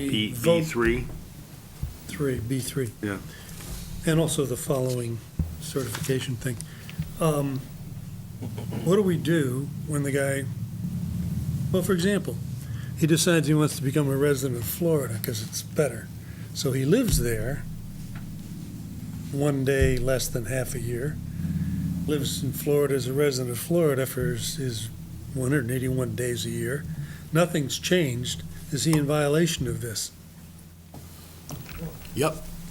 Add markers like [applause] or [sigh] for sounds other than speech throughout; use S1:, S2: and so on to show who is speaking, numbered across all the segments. S1: We vote
S2: E three?
S1: three, B three.
S2: Yeah.
S1: And also the following certification thing. Um, What do we do when the guy, well, for example, he decides he wants to become a resident of Florida because it's better. So he lives there, one day less than half a year, lives in Florida as a resident of Florida for his, his one hundred and eighty-one days a year. Nothing's changed. Is he in violation of this?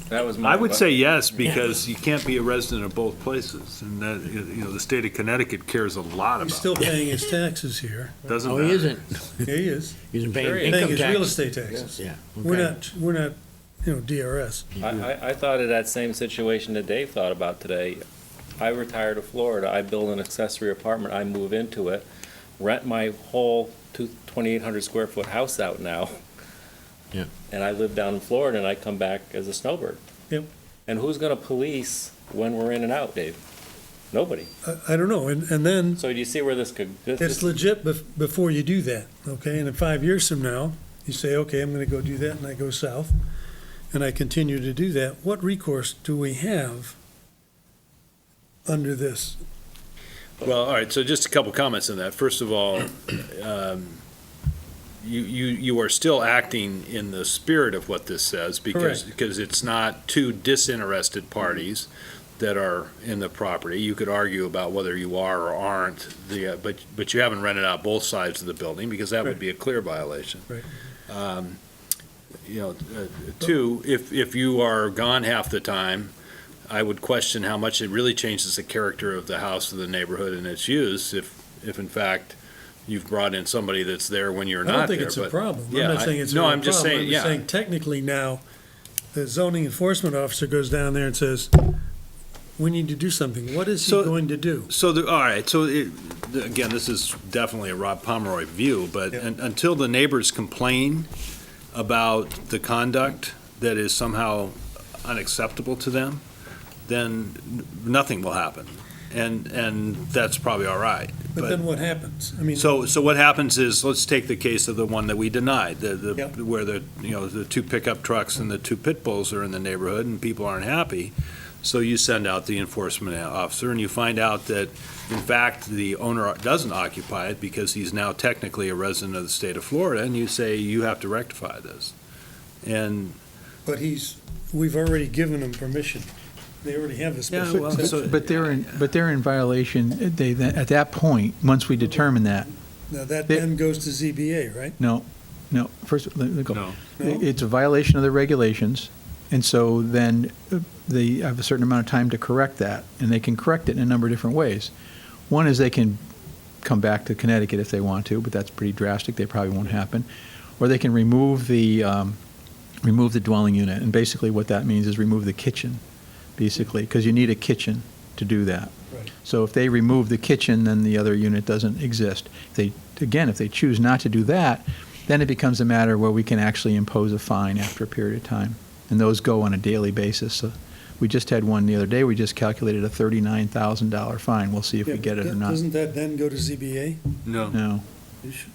S3: That was my.
S2: I would say yes, because you can't be a resident of both places, and that, you know, the state of Connecticut cares a lot
S1: He's
S2: about,
S1: [laughs] still paying his taxes here.
S2: it. doesn't
S4: No,
S2: matter.
S4: Oh, he isn't.
S1: Yeah, he is.
S4: He isn't
S3: Sure he
S4: paying
S3: is.
S1: Paying
S4: income
S1: his real
S4: tax.
S1: estate taxes.
S4: Yeah.
S1: We're
S4: okay.
S1: not, we're not, you know, DRS.
S3: I, I, I thought of that same situation that Dave thought about today. I retire to Florida, I build an accessory apartment, I move into it, rent my whole two, twenty-eight hundred square foot house out now.
S4: Yeah.
S3: And I live down in Florida and I come back as a snowbird.
S1: Yep.
S3: And who's gonna police when we're in and out, Dave? Nobody.
S1: I- I don't know, and, and then
S3: So do you see where this could? this-
S1: it's
S3: this-
S1: legit bef- before you do that, okay? And in five years from now, you say, okay, I'm gonna go do that, and I go south, and I continue to do that, what recourse do we have under this?
S5: Well, all right, so just a couple comments on that. First of all, um, you, you, you are still acting in the spirit of what this says because,
S1: Correct.
S5: because it's not two disinterested parties that are in the property. You could argue about whether you are or aren't, the, uh, but, but you haven't rented out both sides of the building because that would
S1: Right.
S5: be a clear violation.
S1: Right.
S5: Um, You know, uh, two, if, if you are gone half the time, I would question how much it really changes the character of the house or the neighborhood and its use if, if in fact you've brought in somebody that's there when you're
S1: I
S5: not
S1: don't think
S5: there.
S1: it's a
S5: but-
S1: problem. I'm
S5: yeah,
S1: not
S5: I-
S1: saying it's a
S5: no,
S1: real
S5: I'm just
S1: problem.
S5: saying,
S1: I'm
S5: yeah.
S1: saying technically now, the zoning enforcement officer goes down there and says, we need to do something. What is he
S5: So-
S1: going to do?
S5: So, the- all right, so it, again, this is definitely a Rob Pomeroy view, but
S1: Yep.
S5: un- until the neighbors complain about the conduct that is somehow unacceptable to them, then n- nothing will happen. And, and that's probably all right.
S1: But
S5: But-
S1: then what happens? I mean,
S5: So, so what happens is, let's take the case of the one that we denied, the,
S1: Yep.
S5: the, where the, you know, the two pickup trucks and the two pit bulls are in the neighborhood and people aren't happy. So you send out the enforcement officer and you find out that, in fact, the owner doesn't occupy it because he's now technically a resident of the state of Florida and you say, you have to rectify this. And,
S1: but he's, we've already given him permission. They already have the
S5: Yeah,
S1: special
S5: well,
S1: exception.
S5: so-
S6: But they're in, but they're in violation, they, then- at that point, once we determine that,
S1: Now, that then goes to ZBA, right?
S6: no, no, first, let me
S5: No.
S6: go.
S1: No?
S6: It's a violation of the regulations, and so then uh, they have a certain amount of time to correct that, and they can correct it in a number of different ways. One is they can come back to Connecticut if they want to, but that's pretty drastic, they probably won't happen. Or they can remove the, um, remove the dwelling unit, and basically what that means is remove the kitchen, basically, because you need a kitchen to do that.
S1: Right.
S6: So if they remove the kitchen, then the other unit doesn't exist. If They, again, if they choose not to do that, then it becomes a matter where we can actually impose a fine after a period of time. And those go on a daily basis. So we just had one the other day, we just calculated a thirty-nine thousand dollar fine. We'll see if
S1: Yeah,
S6: we get it or
S1: but
S6: not.
S1: Doesn't that then go to ZBA?
S5: no,
S6: No.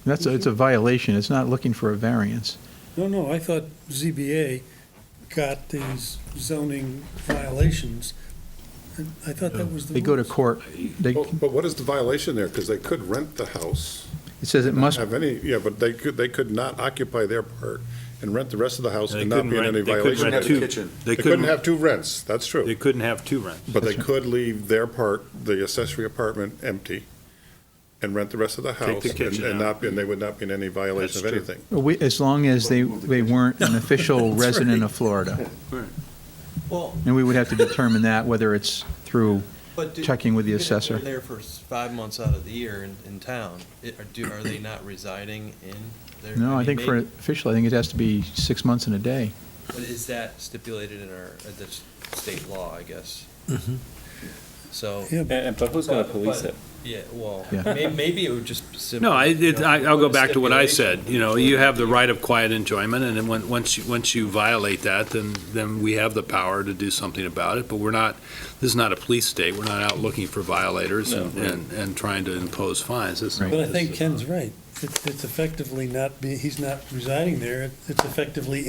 S6: That's, a- it's a violation. It's not looking for a variance.
S1: No, no, I thought ZBA got these zoning violations. and I thought that was the.
S6: They go to
S1: rules.
S6: court. They,
S7: Well, But what is the violation there? Because they could rent the house.
S6: it says it must,
S7: Have any, yeah, but they could, they could not occupy their part and rent the rest of the house
S5: They
S7: and not be in
S5: couldn't
S7: any
S5: rent- they couldn't
S7: violation.
S5: rent
S7: of it.
S5: two. They
S7: They couldn't
S5: couldn't,
S7: have two rents, that's
S5: they
S7: true.
S5: couldn't have two rents.
S7: But they could leave their part, the accessory apartment, empty and rent the rest of the
S5: the
S7: house. and-
S5: kitchen
S7: And
S5: out.
S7: not, be- and they would not be in any violation of
S5: That's true.
S7: anything.
S6: we- as long as they, they weren't an official
S1: [laughs] That's right.
S6: resident of Florida.
S8: Well,
S6: And we would have to determine that, whether it's through
S8: but do-
S6: Checking with the
S8: even if
S6: assessor.
S8: They're there for s- five months out of the year in, in town. It- Are do- are they not residing in their?
S6: No, I
S8: mean,
S6: think for
S8: maybe-
S6: official, I think it has to be six months and a day.
S5: Mm-hmm.
S8: But is that stipulated in our, uh, the s- state law, I guess? So,
S3: And- and- But who's going to police it?
S8: yeah, well,
S6: Yeah.
S8: may- maybe it would just simply.
S5: No, I, it, I- I'll go back to what I
S8: Stipulation.
S5: said, you know, you have the right of quiet enjoyment, and then when, once you, once you violate that, then, then we have the power to do something about it, but we're not, this is not a police state, we're not out looking for violators and,
S3: No.
S5: and- and trying to impose fines, This is-
S6: Right.
S1: But I think Ken's right. It's it's effectively not, be- he's not residing there. It's effectively